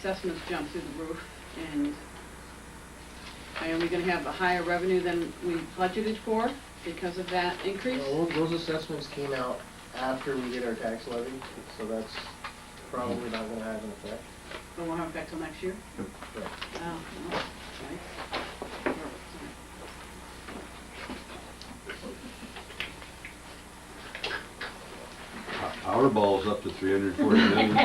assessments jump through the roof, and are we gonna have a higher revenue than we budgeted for because of that increase? Well, Those assessments came out after we did our tax levy, so that's probably not gonna have an effect. Or won't have effect till next year? Right. Oh, no, right. Our ball's up to three hundred and forty million.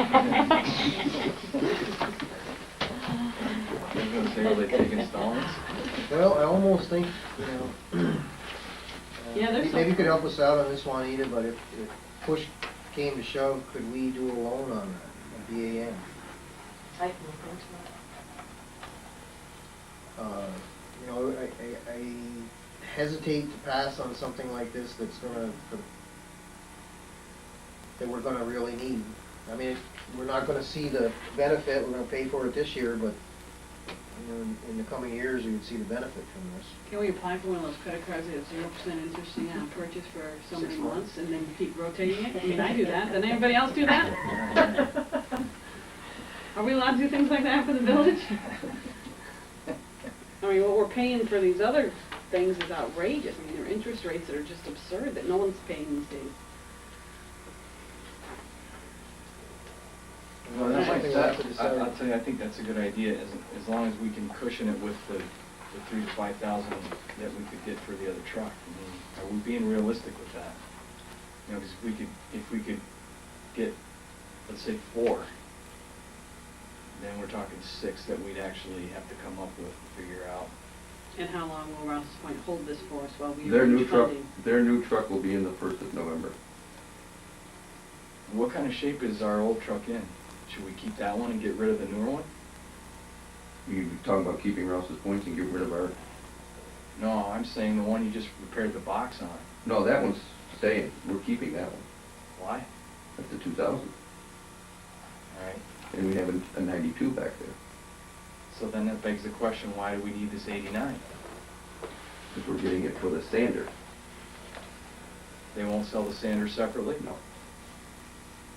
I'm gonna say, will they take installments? Well, I almost think, you know. uh, Yeah, there's Maybe you some- could help us out on this one, Anita, but if, if push came to shove, could we do a loan on that, a BAN? I can look into Uh, You know, I, I- I hesitate to pass on something like this that's gonna, that we're gonna really need. I mean, we're not gonna see the benefit, we're gonna pay for it this year, but, you know, in- in the coming years, we would see the benefit from this. Can we apply for one of those credit cards that have zero percent interest and uh, purchase for so Six many months. months and then keep rotating it? I mean, I do that, doesn't anybody else do that? Are we allowed to do things like that for the village? I mean, what we're paying for these other things is outrageous. I mean, there are interest rates that are just absurd that no one's paying these days. Well, that's like, Something that- left to decide. I- I'll tell you, I think that's a good idea, as, as long as we can cushion it with the, the three to five thousand that we could get for the other truck. I mean, Are we being realistic with that? You know, 'cause if we could, if we could get, let's say, four, then we're talking six that we'd actually have to come up with, and figure out. And how long will Rouse's Point hold this for us while we Their new arrange truck, funding? their new truck will be in the first of November. What kind of shape is our old truck in? Should we keep that one and get rid of the newer one? You were talking about keeping Rouse's points and getting rid of our, No, I'm saying the one you just repaired the box on. no, that one's staying. We're keeping that one. Why? That's the two thousand. All right. And we have a- a ninety-two back there. So then that begs the question, why do we need this 89? Because we're getting it for the sander. They won't sell the sander separately? No.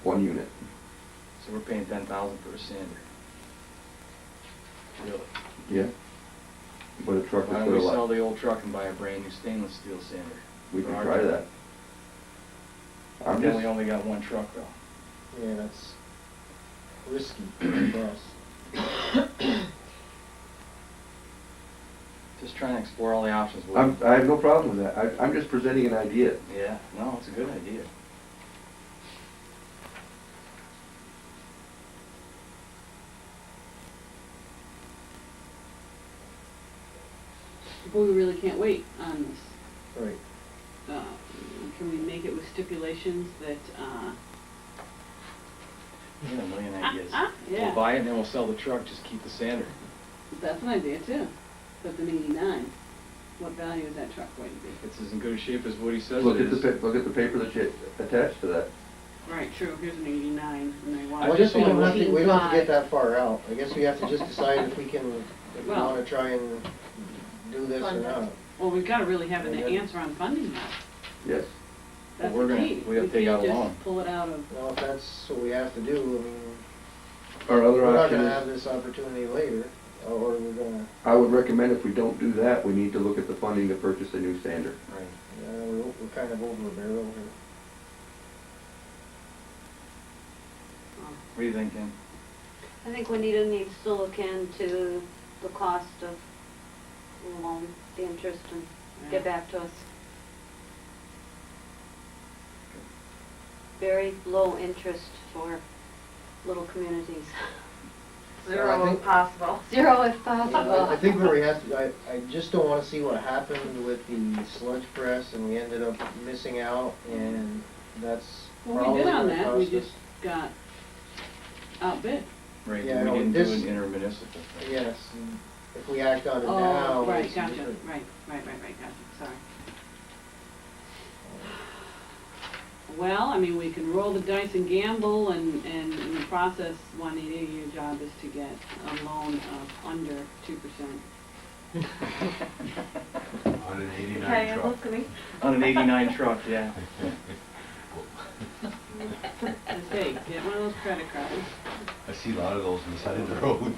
One unit. So we're paying 10,000 for a sander? Really? Yeah. But a truck is Why don't put a we sell lot. the old truck and buy a brand-new stainless steel sander? We for can our try truck? that. I'm Then just, we only got one truck though. Yeah, that's risky for us. Just trying to explore all the options. Will- I'm, I have no problem with that. I, I'm just presenting an idea. Yeah, no, it's a good idea. But we really can't wait on this. Right. Uh, Can we make it with stipulations that, uh, We got a million ideas. yeah. We'll buy it and then we'll sell the truck, just keep the sander. that's an idea too, but the eighty-nine, what value is that truck going to be? It's as in good a shape as Woody says Look it at the, is. pa- look at the paper that's a- attached to that. Right, true, here's an eighty-nine, and they want. Well, I guess we don't have to, we don't have to 14.5. get that far out. I guess we have to just decide if we can, if we Well- wanna try and do this or Fund it. not. Well, we've gotta really have an answer on funding now, Yes. Well, that's we're the gonna- key. we have to take out a can't loan. just pull it out of, Well, if that's what we have to do, I mean, Our other we're not option gonna have is, this opportunity later, or we're gonna, I would recommend if we don't do that, we need to look at the funding to purchase a new sander. Right. you know, we're, we're kind of over a barrel here. um, What do you think, Dan? I think Juanita needs to look into the cost of the loan, the interest, and get Yeah. back to us. Very low interest for little communities. Zero if possible. Zero if I I possible. think where we have to, I, I just don't wanna see what happened with the sludge press and we ended up missing out and that's well, we probably did on gonna that, we cost just us. got outbid. Right, we Yeah, no, didn't do this- an intermunicipal thing. Yes, and if we act on it now. Oh, right, it's- gotcha, right, right, right, right, gotcha, sorry. Well, I mean, we can roll the dice and gamble, and, and in the process, Juanita, your job is to get a loan of under two percent. On an eighty-nine truck. On an eighty-nine truck, yeah. mistake, get one of those credit cards. I see a lot of those on the side of the road.